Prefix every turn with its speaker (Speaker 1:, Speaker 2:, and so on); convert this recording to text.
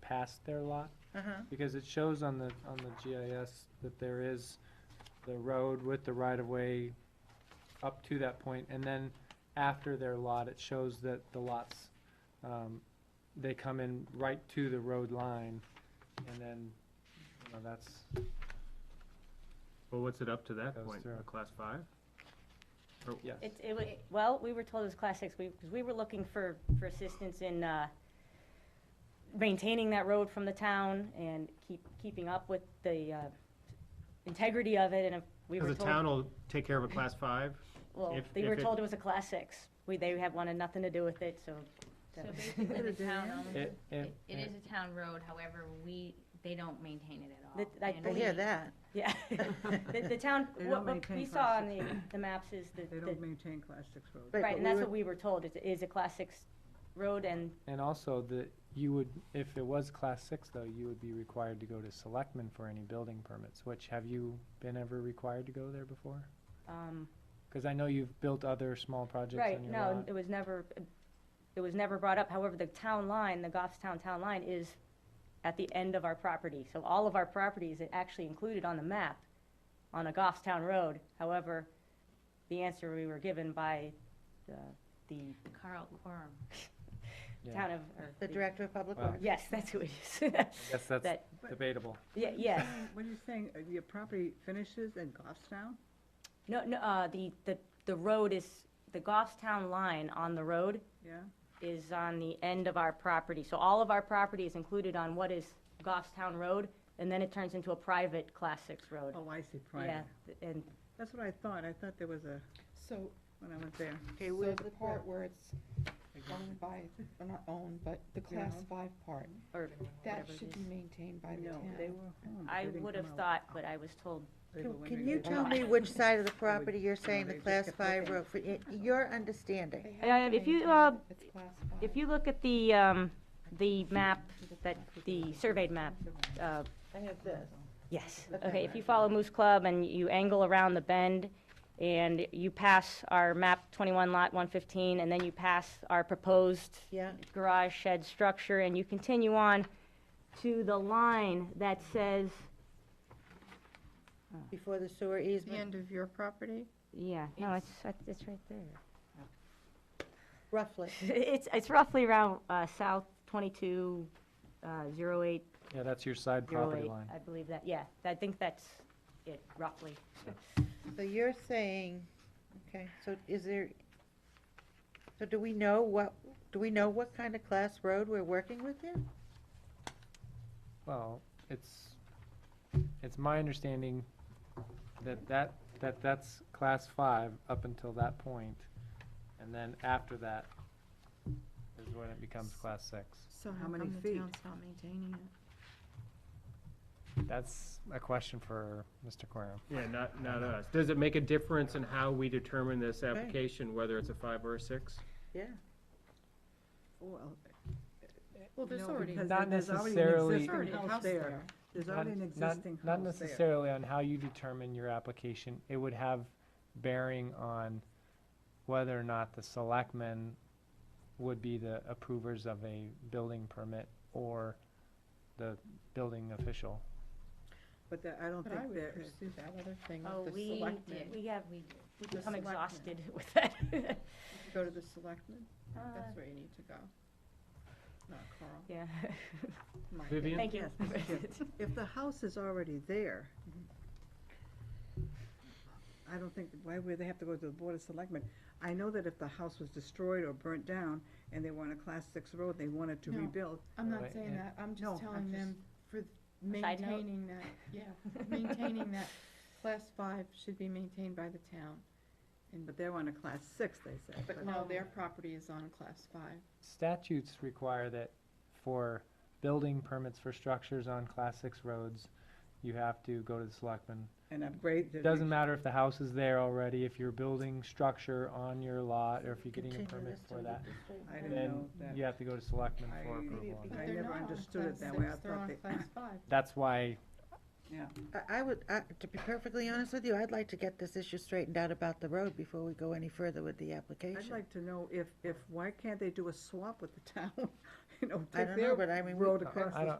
Speaker 1: past their lot?
Speaker 2: Uh-huh.
Speaker 1: Because it shows on the, on the GIS that there is the road with the right-of-way up to that point, and then after their lot, it shows that the lots, um, they come in right to the road line, and then, you know, that's,
Speaker 3: Well, what's it up to that
Speaker 1: Goes
Speaker 3: point,
Speaker 1: through.
Speaker 3: a class five? Or-
Speaker 1: yes.
Speaker 4: It's, it was, well, we were told it was class six, we, because we were looking for, for assistance in, uh, maintaining that road from the town and keep, keeping up with the, uh, integrity of it, and if we were
Speaker 3: Cause
Speaker 4: told.
Speaker 3: the town will take care of a class five,
Speaker 4: Well,
Speaker 3: if-
Speaker 4: they were
Speaker 3: if it-
Speaker 4: told it was a class six, we, they had wanted nothing to do with it, so.
Speaker 5: So
Speaker 4: that was-
Speaker 5: basically, the town owns it.
Speaker 1: It- it-
Speaker 5: It is a town road, however, we, they don't maintain it at all.
Speaker 4: That- I
Speaker 5: and
Speaker 2: I
Speaker 5: we-
Speaker 2: hear that.
Speaker 4: Yeah, the, the town,
Speaker 6: They
Speaker 4: what,
Speaker 6: don't
Speaker 4: what
Speaker 6: maintain
Speaker 4: we
Speaker 6: class
Speaker 4: saw on the, the maps is the,
Speaker 6: They
Speaker 4: the-
Speaker 6: don't maintain class six roads.
Speaker 2: Right,
Speaker 4: right,
Speaker 2: but we
Speaker 4: and that's
Speaker 2: were-
Speaker 4: what we were told, it is a class six road, and
Speaker 1: And also that you would, if it was class six though, you would be required to go to selectmen for any building permits, which have you been ever required to go there before?
Speaker 4: Um,
Speaker 1: Cause I know you've built other small projects
Speaker 4: right,
Speaker 1: on your
Speaker 4: no,
Speaker 1: lot.
Speaker 4: it was never, it was never brought up. However, the town line, the Goffstown town line is at the end of our property. So all of our properties are actually included on the map on a Goffstown road. However, the answer we were given by the, the
Speaker 5: Carl Quorum.
Speaker 1: Yeah.
Speaker 4: town of, or.
Speaker 2: The director of public
Speaker 1: Wow.
Speaker 2: works.
Speaker 4: Yes, that's who it is.
Speaker 1: I guess that's
Speaker 4: That,
Speaker 1: debatable.
Speaker 4: yeah, yes.
Speaker 6: What are you saying, uh, your property finishes in Goffstown?
Speaker 4: No, no, uh, the, the, the road is, the Goffstown line on the road
Speaker 6: Yeah?
Speaker 4: is on the end of our property. So all of our property is included on what is Goffstown Road, and then it turns into a private Class 6 road.
Speaker 6: Oh, I see,
Speaker 4: Yeah,
Speaker 6: private.
Speaker 4: th- and
Speaker 6: That's what I thought. I thought there was a,
Speaker 7: So,
Speaker 6: when I went there.
Speaker 2: Okay,
Speaker 7: so
Speaker 2: where's
Speaker 7: the
Speaker 2: the
Speaker 7: part
Speaker 2: part?
Speaker 7: where it's owned by, or not owned, but the class
Speaker 6: Yeah.
Speaker 7: five part,
Speaker 4: or
Speaker 7: that
Speaker 4: whatever it
Speaker 7: should
Speaker 4: is.
Speaker 7: be maintained by the
Speaker 6: No,
Speaker 7: town.
Speaker 6: they were home.
Speaker 4: I would have thought, but I was told,
Speaker 2: Can- Can you tell me
Speaker 4: Right.
Speaker 2: which side of the
Speaker 6: would-
Speaker 2: property you're saying the
Speaker 6: they just
Speaker 2: class
Speaker 6: kept
Speaker 2: five
Speaker 6: looking.
Speaker 2: road, for y- your understanding?
Speaker 7: They have to
Speaker 4: if you,
Speaker 7: maintain
Speaker 4: uh,
Speaker 7: it. It's class
Speaker 4: if
Speaker 7: five.
Speaker 4: you look at the, um, the map, that, the surveyed map, uh,
Speaker 2: I have this.
Speaker 4: Yes,
Speaker 2: Okay.
Speaker 4: okay, if you follow Moose Club and you angle around the bend, and you pass our map twenty-one lot one fifteen, and then you pass our proposed
Speaker 2: Yeah.
Speaker 4: garage shed structure, and you continue on to the line that says,
Speaker 2: Before the sewer
Speaker 7: The
Speaker 2: easement,
Speaker 7: end of your property?
Speaker 4: yeah, no, it's, it's right there.
Speaker 2: roughly.
Speaker 4: It's, it's roughly around, uh, south twenty-two, uh, zero eight,
Speaker 1: Yeah, that's your side
Speaker 4: zero
Speaker 1: property
Speaker 4: eight,
Speaker 1: line.
Speaker 4: I believe that, yeah, I think that's it, roughly.
Speaker 2: So you're saying, okay, so is there, so do we know what, do we know what kind of class road we're working with here?
Speaker 1: Well, it's, it's my understanding that that, that that's class five up until that point, And then after that is when it becomes class six.
Speaker 7: So
Speaker 6: How
Speaker 7: how
Speaker 6: many
Speaker 7: come the
Speaker 6: feet?
Speaker 7: town's not maintaining it?
Speaker 1: That's a question for Mr. Quorum.
Speaker 3: yeah, not, not us. Does it make a difference in how we determine this application, whether it's a five or a six?
Speaker 2: Yeah.
Speaker 6: Well,
Speaker 7: Well, there's
Speaker 6: no,
Speaker 7: already,
Speaker 6: because
Speaker 1: Not
Speaker 6: there's already an
Speaker 1: necessarily-
Speaker 6: existing
Speaker 7: already a
Speaker 6: house there. There's
Speaker 1: Not-
Speaker 6: already an
Speaker 1: not-
Speaker 6: existing
Speaker 1: Not
Speaker 6: house there.
Speaker 1: necessarily on how you determine your application, it would have bearing on whether or not the selectmen would be the approvers of a building permit or the building official.
Speaker 6: But that- I don't
Speaker 7: But I
Speaker 6: think
Speaker 7: would
Speaker 6: there,
Speaker 7: pursue that other thing
Speaker 4: Oh,
Speaker 7: with the
Speaker 4: we
Speaker 7: selectmen.
Speaker 4: We have,
Speaker 5: We do.
Speaker 4: we
Speaker 7: The
Speaker 4: become
Speaker 7: selectmen.
Speaker 4: exhausted with that.
Speaker 7: Go to the selectmen,
Speaker 4: Uh,
Speaker 7: that's where you need to go. Not Carl.
Speaker 4: Yeah.
Speaker 7: my
Speaker 3: Vivian?
Speaker 7: opinion.
Speaker 4: Thank you.
Speaker 6: Yes, Mr. Chair. if the house is already there,
Speaker 2: Mm-hmm.
Speaker 6: I don't think, why would they have to go to the Board of Selectmen? I know that if the house was destroyed or burnt down and they were on a class six road, they wanted to
Speaker 7: No.
Speaker 6: rebuild,
Speaker 7: I'm
Speaker 1: Right,
Speaker 7: not saying
Speaker 1: yeah.
Speaker 7: that, I'm
Speaker 6: No, I'm
Speaker 7: just telling
Speaker 6: just-
Speaker 7: them for th-
Speaker 4: Side note.
Speaker 7: maintaining that, yeah, maintaining that class five should be maintained by the town. And,
Speaker 6: but they were on a class six, they said.
Speaker 7: but no, their property is on class five.
Speaker 1: Statutes require that for building permits for structures on class six roads, you have to go to the selectmen
Speaker 6: And upgrade. the-
Speaker 1: It doesn't matter if the house is there already, if you're building structure on your lot, or if you're getting a
Speaker 2: Continue
Speaker 1: permit
Speaker 2: this
Speaker 1: for
Speaker 2: till
Speaker 1: that,
Speaker 6: I didn't
Speaker 1: then
Speaker 6: know that.
Speaker 1: you have to go to selectmen for
Speaker 6: I-
Speaker 1: approval. on
Speaker 7: But
Speaker 1: that.
Speaker 6: I
Speaker 7: they're
Speaker 6: never
Speaker 7: not on
Speaker 6: understood it
Speaker 7: class
Speaker 6: that way. I
Speaker 7: six, They're
Speaker 6: thought
Speaker 7: on
Speaker 6: they-
Speaker 7: class five.
Speaker 1: That's why,
Speaker 2: I, I would, I- to be perfectly honest with you, I'd like to get this issue straightened out about the road before we go any further with the
Speaker 6: I'd
Speaker 2: application.
Speaker 6: like to know if, if, why can't they do a swap with the town? You know,
Speaker 2: I
Speaker 6: take
Speaker 2: don't know,
Speaker 6: their
Speaker 2: but I mean, we-
Speaker 6: road
Speaker 1: I
Speaker 6: across
Speaker 1: I
Speaker 6: the
Speaker 1: don't,